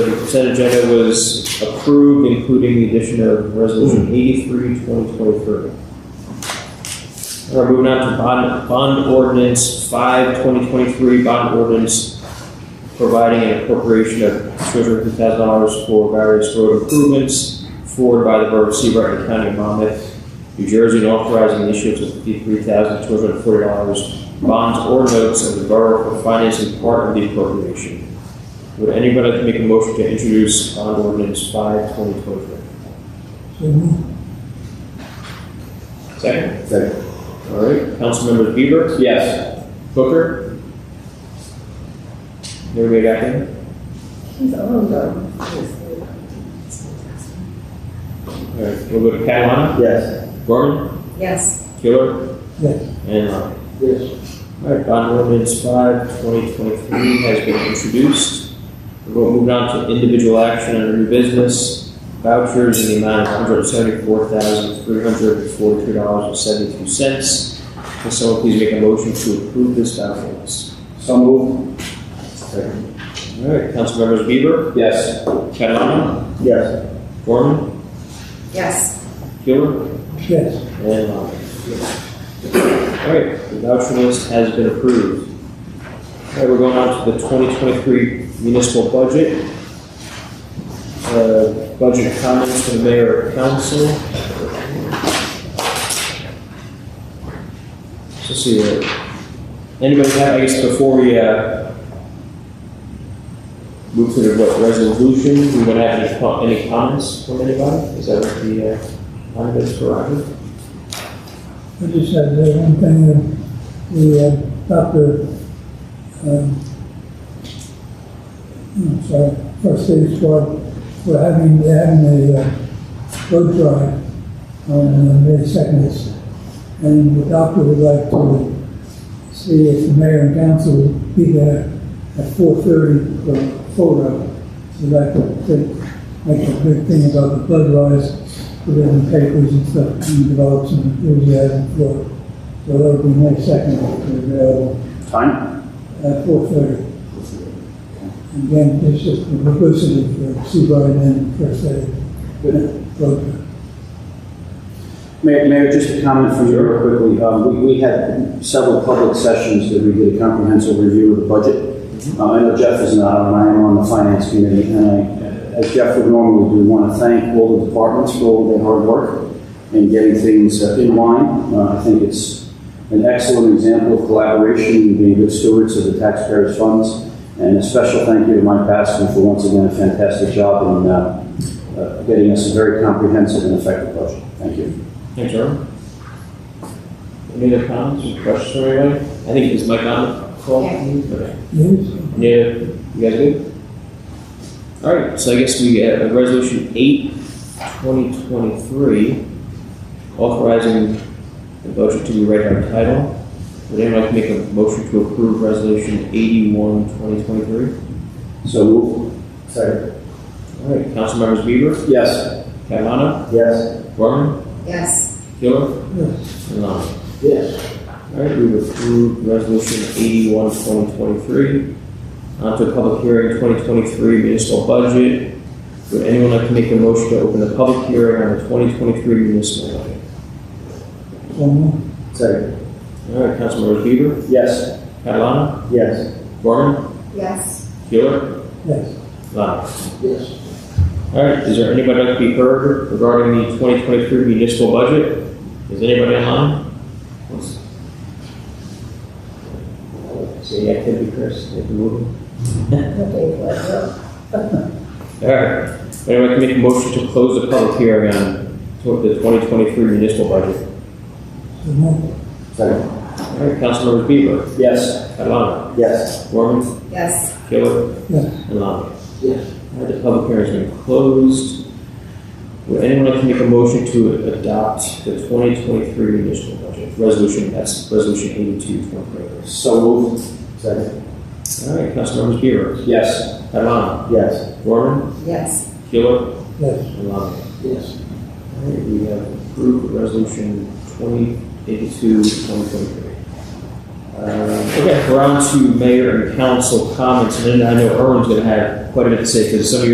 consent agenda was approved, including the addition of resolution 83, 2023. All right, moving on to bond, bond ordinance 5, 2023, bond ordinance providing an appropriation of $250,000 for various road improvements forwarded by the Borough of Seabright and County of Monmouth, New Jersey, and authorizing the issuance of $53,240 bonds or notes of the borough for financing part of the appropriation. Would anybody like to make a motion to introduce bond ordinance five twenty twenty-three? Second? Second. All right, council members Bieber, Yes. Booker? Everybody got him? He's all done. All right, we'll go to Catalano, Yes. Gorman, Yes. Killer? Yes. And Lyon. Yes. All right, bond ordinance five twenty twenty-three has been introduced. We're going to move on to individual action under new business vouchers in the amount of one hundred seventy-four thousand three hundred forty-two dollars and seventy-two cents. Can someone please make a motion to approve this voucher list? So moved. Second. All right, Councilmembers Bieber, Yes. Catwana, Yes. Gorman, Yes. Gilmer, Yes. and Lonnie. All right, the voucher list has been approved. All right, we're going on to the 2023 municipal budget. Uh, Budget comments from the mayor and council. Let's see, uh, anybody have, I guess, before we uh, move to the what, resolution, we want to have any co- any comments from anybody? Is that what the, uh, on this prerogative? I just had uh, one thing, uh, the, uh, Dr., um, I'm sorry, first aid squad, we're having, they're having a uh, road drive on uh, May second. And the doctor would like to see if the mayor and council would be there at four thirty for a photo. So that could take- make a big thing about the blood rise, put it in papers and stuff, and develop some enthusiasm for it. So that'll be May second, available Time? at four thirty. Again, it's just the publicity for Seabright and First Aid. Program. Mayor, Mayor, just a comment from you real quickly. Um, We we had several public sessions that we did a comprehensive review of the budget. Uh, I know Jeff is not on, I am on the finance committee, and I, as Jeff would normally do, want to thank all the departments for all their hard work in getting things uh, in line. Uh, I think it's an excellent example of collaboration and being good stewards of the taxpayers' funds. And a special thank you to Mike Baskin for once again a fantastic job in uh, uh, getting us a very comprehensive and effective budget. Thank you. Thanks, Earl. Any other comments or questions from anybody? I think it's my comment. Paul? Yeah. Okay. Yeah, you guys good? All right, so I guess we get a resolution eight, twenty twenty-three, authorizing the budget to be read by title. Would anyone like to make a motion to approve resolution eighty-one, twenty twenty-three? So move. Second. All right, Councilmembers Bieber, Yes. Catalano, Yes. Gorman, Yes. Gilmer, Yes, and Lonnie. Yes. All right, we've approved resolution 81, 2023. On to public hearing 2023 municipal budget. Would anyone like to make a motion to open the public hearing on the 2023 municipal budget? one Second. All right, Councilmembers Bieber, Yes. Catalano, Yes. Gorman, Yes. Keeler, more, yes. Lyon. Yes. All right, is there anybody like to be heard regarding the 2023 municipal budget? Is anybody online? Let's- See the activity, Chris, if you move. Okay, well, All right, anyone can make a motion to close the public hearing on tw- the 2023 municipal budget. So more, Second. All right, Councilmembers Bieber, Yes. Catalano, Yes. Gorman, Yes. Taylor, yes. and Lally. Yes. All right, the public hearing's been closed. Would anyone like to make a motion to adopt the 2023 municipal budget? Resolution, that's Resolution 82, 2023. So move. Second. All right, Councilmembers Bieber, Yes. Catalano, Yes. Gorman, Yes. Taylor, Yes, and Lally. Yes. All right, we have approved resolution 2082, 2023. Um, Okay, we're on to mayor and council comments, and then I know Erwin's going to have quite a bit to say, because some of your